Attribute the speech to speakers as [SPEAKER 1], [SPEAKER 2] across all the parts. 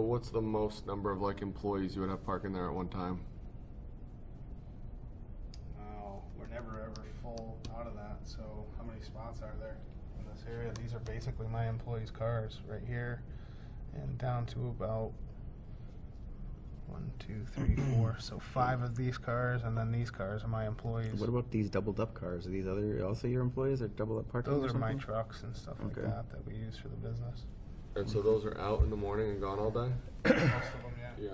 [SPEAKER 1] what's the most number of like employees you would have parking there at one time?
[SPEAKER 2] Oh, we're never ever full out of that. So how many spots are there in this area? These are basically my employees' cars right here, and down to about one, two, three, four. So five of these cars, and then these cars are my employees.
[SPEAKER 3] What about these doubled up cars? Are these other also your employees or double up parking? or
[SPEAKER 2] Those are my
[SPEAKER 3] something?
[SPEAKER 2] trucks and stuff like
[SPEAKER 3] Okay.
[SPEAKER 2] that that we use for the business.
[SPEAKER 1] And so those are out in the morning and gone all day?
[SPEAKER 2] Most of them, yeah.
[SPEAKER 1] Yeah.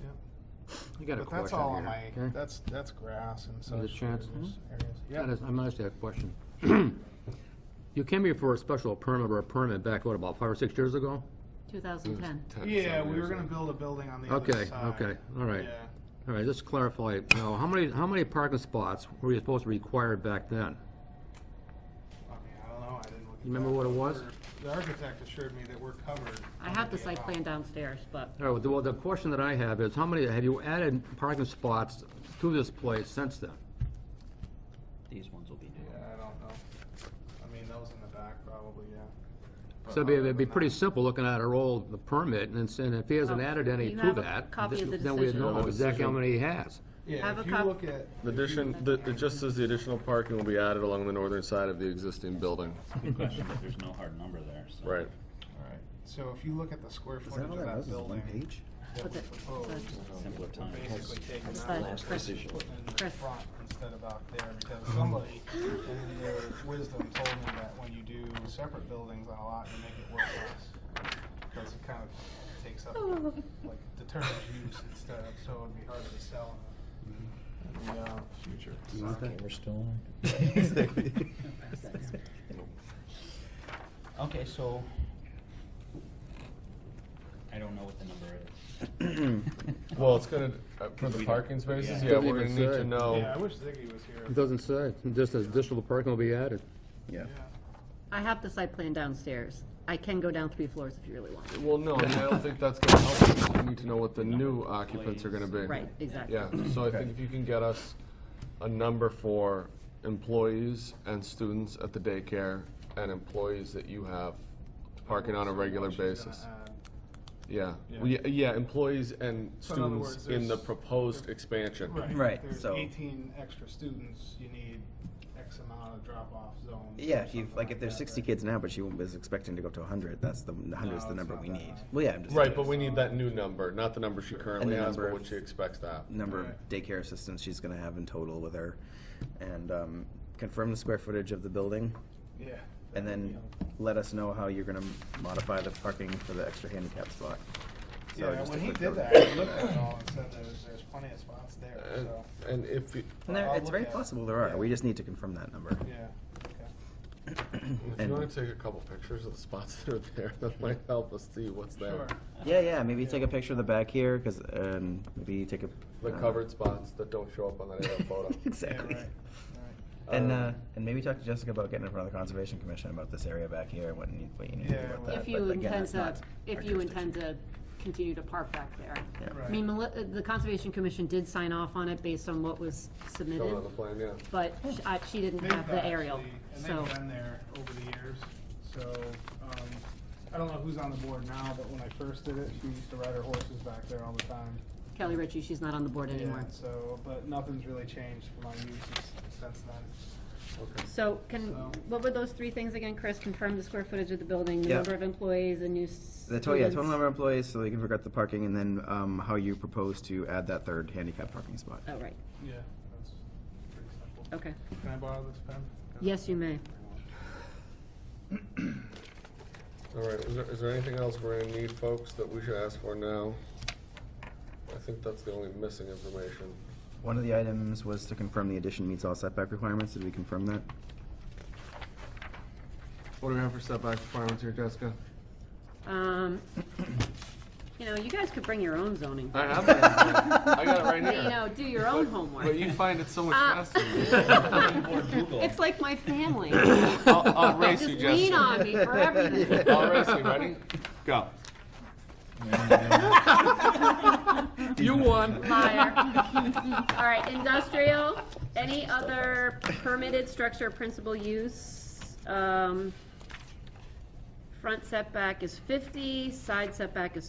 [SPEAKER 2] Yep.
[SPEAKER 4] I got a
[SPEAKER 2] But that's
[SPEAKER 4] question
[SPEAKER 2] all on my,
[SPEAKER 4] here. okay?
[SPEAKER 2] that's, that's grass and such.
[SPEAKER 4] There's a chance.
[SPEAKER 2] areas-
[SPEAKER 4] Mm-hmm. That
[SPEAKER 2] Areas,
[SPEAKER 4] is, I'm asking a question. You came here for a special permit or a permit back, what, about five or six years ago?
[SPEAKER 5] 2010.
[SPEAKER 1] Ten,
[SPEAKER 2] yep. Yeah,
[SPEAKER 1] seven
[SPEAKER 2] we were
[SPEAKER 1] years
[SPEAKER 2] gonna
[SPEAKER 1] ago.
[SPEAKER 2] build a building on the other
[SPEAKER 4] Okay,
[SPEAKER 2] side.
[SPEAKER 4] okay, all right.
[SPEAKER 2] uh, Yeah.
[SPEAKER 4] All right, just clarify, now, how many, how many parking spots were you supposed to require back then?
[SPEAKER 2] I mean, I don't know, I didn't look at
[SPEAKER 4] You remember
[SPEAKER 2] that.
[SPEAKER 4] what it was?
[SPEAKER 2] The architect assured me that we're covered.
[SPEAKER 5] I have the
[SPEAKER 2] under
[SPEAKER 5] site
[SPEAKER 2] AMI.
[SPEAKER 5] plan downstairs, but
[SPEAKER 4] All right, well, the- well, the question that I have is, how many, have you added parking spots to this place since then?
[SPEAKER 3] These ones will be
[SPEAKER 2] Yeah,
[SPEAKER 3] new.
[SPEAKER 2] I don't know. I mean, those in the back probably, yeah. But
[SPEAKER 4] So it'd be,
[SPEAKER 2] other
[SPEAKER 4] it'd be
[SPEAKER 2] than
[SPEAKER 4] pretty
[SPEAKER 2] that-
[SPEAKER 4] simple looking at our old permit, and it's- and if he hasn't
[SPEAKER 5] Oh,
[SPEAKER 4] added any
[SPEAKER 5] you
[SPEAKER 4] to
[SPEAKER 5] have a
[SPEAKER 4] that,
[SPEAKER 5] copy of the
[SPEAKER 4] th- then we
[SPEAKER 5] decision.
[SPEAKER 4] know
[SPEAKER 1] The
[SPEAKER 4] exactly how
[SPEAKER 1] decision.
[SPEAKER 4] many he has.
[SPEAKER 2] Yeah,
[SPEAKER 5] Have
[SPEAKER 2] if
[SPEAKER 5] the
[SPEAKER 2] you
[SPEAKER 5] cop-
[SPEAKER 2] look at,
[SPEAKER 1] The addition, the, it just says the additional parking will be added along the northern side of the existing building.
[SPEAKER 3] Good question, but there's no hard number there, so.
[SPEAKER 1] Right.
[SPEAKER 2] so if you look at the square
[SPEAKER 3] Is
[SPEAKER 2] footage
[SPEAKER 3] that
[SPEAKER 2] of
[SPEAKER 3] all that
[SPEAKER 2] that
[SPEAKER 3] was, is one
[SPEAKER 2] building.
[SPEAKER 3] page?
[SPEAKER 2] that
[SPEAKER 5] What's
[SPEAKER 2] we
[SPEAKER 5] it?
[SPEAKER 2] proposed,
[SPEAKER 3] Simpler
[SPEAKER 2] we're
[SPEAKER 3] time.
[SPEAKER 2] um, basically taking
[SPEAKER 5] It's
[SPEAKER 2] that
[SPEAKER 5] the
[SPEAKER 2] last
[SPEAKER 5] Chris.
[SPEAKER 2] decision in the
[SPEAKER 5] Chris.
[SPEAKER 2] front instead of out there, because somebody in their wisdom told me that when you do separate buildings on a lot, you make it work less. Because it kind of takes up,
[SPEAKER 5] Oh.
[SPEAKER 2] like, determines use instead of, so it'd be harder to sell in
[SPEAKER 5] Mm-hmm.
[SPEAKER 2] the, in the, uh, future.
[SPEAKER 3] You want that? Okay, so. I don't know what the number is.
[SPEAKER 1] Well, it's gonna, uh, for
[SPEAKER 3] we
[SPEAKER 1] the
[SPEAKER 3] don't-
[SPEAKER 1] parking spaces,
[SPEAKER 3] yeah.
[SPEAKER 1] yeah,
[SPEAKER 4] Doesn't
[SPEAKER 1] we're gonna
[SPEAKER 4] even
[SPEAKER 1] need
[SPEAKER 4] say.
[SPEAKER 1] to
[SPEAKER 2] Yeah, I
[SPEAKER 1] know.
[SPEAKER 2] wish Ziggy was here.
[SPEAKER 4] It doesn't say, just as additional parking will be added.
[SPEAKER 3] Yeah.
[SPEAKER 5] I have the site plan downstairs. I can go down three floors if you really want.
[SPEAKER 1] Well, no, I mean, I don't think that's gonna help. us. We need to know what the new occupants are gonna be.
[SPEAKER 5] Right, exactly.
[SPEAKER 1] Yeah, so I think if you can get us a number for employees and students at the daycare and employees that you have parking on a
[SPEAKER 2] So
[SPEAKER 1] regular
[SPEAKER 2] what she's gonna
[SPEAKER 1] basis.
[SPEAKER 2] add.
[SPEAKER 1] Yeah,
[SPEAKER 2] Yeah.
[SPEAKER 1] Well, yeah, yeah, employees and
[SPEAKER 2] So in other
[SPEAKER 1] students
[SPEAKER 2] words,
[SPEAKER 1] in the
[SPEAKER 2] there's-
[SPEAKER 1] proposed expansion.
[SPEAKER 2] Right.
[SPEAKER 3] Right,
[SPEAKER 2] There's
[SPEAKER 3] so-
[SPEAKER 2] Eighteen extra students, you need X amount of drop-off zones. or
[SPEAKER 6] Yeah, if you
[SPEAKER 2] something
[SPEAKER 6] like, if there's
[SPEAKER 2] that,
[SPEAKER 6] 60
[SPEAKER 2] right?
[SPEAKER 6] kids now, but she was expecting to go to 100, that's the 100 is
[SPEAKER 2] No,
[SPEAKER 6] the
[SPEAKER 2] it's
[SPEAKER 6] number
[SPEAKER 2] not
[SPEAKER 6] we
[SPEAKER 2] that
[SPEAKER 6] need.
[SPEAKER 2] high.
[SPEAKER 6] Well, yeah, I'm just
[SPEAKER 1] Right, but we need that new number, not the number she currently
[SPEAKER 6] the
[SPEAKER 1] has, but
[SPEAKER 6] number
[SPEAKER 1] what
[SPEAKER 6] of- Mm.
[SPEAKER 1] she expects to have.
[SPEAKER 6] number
[SPEAKER 2] Alright.
[SPEAKER 6] of daycare assistants she's going to have in total with her, and um, confirm the square footage of the building,
[SPEAKER 2] Yeah.
[SPEAKER 6] and then let us know how you're going to modify the parking for the extra handicap spot. So
[SPEAKER 2] Yeah,
[SPEAKER 6] just a
[SPEAKER 2] when he
[SPEAKER 6] quick
[SPEAKER 2] did
[SPEAKER 6] note.
[SPEAKER 2] that, I looked at it all and said there's, there's plenty of spots there,
[SPEAKER 1] And,
[SPEAKER 2] so,
[SPEAKER 1] and if, you-
[SPEAKER 6] And there,
[SPEAKER 2] I'll
[SPEAKER 6] it's
[SPEAKER 2] look
[SPEAKER 6] very
[SPEAKER 2] at it.
[SPEAKER 6] possible there are.
[SPEAKER 2] Yeah.
[SPEAKER 6] We just need to confirm that number.
[SPEAKER 2] yeah, okay.
[SPEAKER 1] if you
[SPEAKER 6] And-
[SPEAKER 1] wanna take a couple pictures of the spots that are there, that might help us see what's there.
[SPEAKER 2] Sure.
[SPEAKER 6] Yeah, yeah. Maybe take a picture of the back here, because um, maybe take a
[SPEAKER 1] The
[SPEAKER 6] uh,
[SPEAKER 1] covered spots that don't show up on that aerial photo.
[SPEAKER 2] Yeah, right,
[SPEAKER 6] exactly.
[SPEAKER 2] right.
[SPEAKER 6] And
[SPEAKER 1] Um,
[SPEAKER 6] uh, and maybe talk to Jessica about getting in front of the conservation commission about this area back here and what you need, what you need to
[SPEAKER 2] Yeah,
[SPEAKER 6] do about
[SPEAKER 2] well-
[SPEAKER 6] that.
[SPEAKER 5] If you
[SPEAKER 6] But again,
[SPEAKER 5] intend
[SPEAKER 6] that's
[SPEAKER 5] to,
[SPEAKER 6] not our
[SPEAKER 5] if you intend
[SPEAKER 6] jurisdiction.
[SPEAKER 5] to continue to park back there.
[SPEAKER 2] Right.
[SPEAKER 5] I mean, Meli- the Conservation Commission did sign off on it based on what was
[SPEAKER 1] Shown on the
[SPEAKER 5] submitted,
[SPEAKER 1] plan, yeah.
[SPEAKER 5] but sh- I- she didn't
[SPEAKER 2] They've
[SPEAKER 5] have the aerial,
[SPEAKER 2] actually-
[SPEAKER 5] so.
[SPEAKER 2] And they've been there over the years, so, um, I don't know who's on the board now, but when I first did it, she used to ride her horses back there all the time.
[SPEAKER 5] Kelly Ritchie, she's not on the board anymore.
[SPEAKER 2] Yeah, so, but nothing's really changed for my uses since then.
[SPEAKER 5] So can,
[SPEAKER 2] So-
[SPEAKER 5] what were those three things again, Chris? Confirm the square footage of the building, the
[SPEAKER 6] Yeah.
[SPEAKER 5] number of employees, and new
[SPEAKER 6] The total, yeah,
[SPEAKER 5] students.
[SPEAKER 6] total number of employees, so they can figure out the parking, and then um, how you propose to add that third handicap parking spot.
[SPEAKER 5] Oh, right,
[SPEAKER 2] Yeah, that's pretty simple.
[SPEAKER 5] okay.
[SPEAKER 2] Can I borrow this pen?
[SPEAKER 5] Yes, you may.
[SPEAKER 1] All right, is there, is there anything else we're gonna need, folks, that we should ask for now? I think that's the only missing information.
[SPEAKER 6] One of the items was to confirm the addition meets all setback requirements. Did we confirm that?
[SPEAKER 1] What do we have for setback requirements here, Jessica?
[SPEAKER 5] Um, you know, you guys could bring your own zoning.
[SPEAKER 1] I have it, I got it right
[SPEAKER 5] You
[SPEAKER 1] here.
[SPEAKER 5] know, do your own homework.
[SPEAKER 1] But you find it so much
[SPEAKER 5] Uh,
[SPEAKER 1] faster.
[SPEAKER 5] It's like my family.
[SPEAKER 1] I'll, I'll race
[SPEAKER 5] Just
[SPEAKER 1] you,
[SPEAKER 5] lean
[SPEAKER 1] Jessica.
[SPEAKER 5] on me for everything.
[SPEAKER 1] I'll race you, ready? Go. You won.
[SPEAKER 5] Liar. All right, industrial, any other permitted structure or principal use? Um, Front setback is fifty, side setback is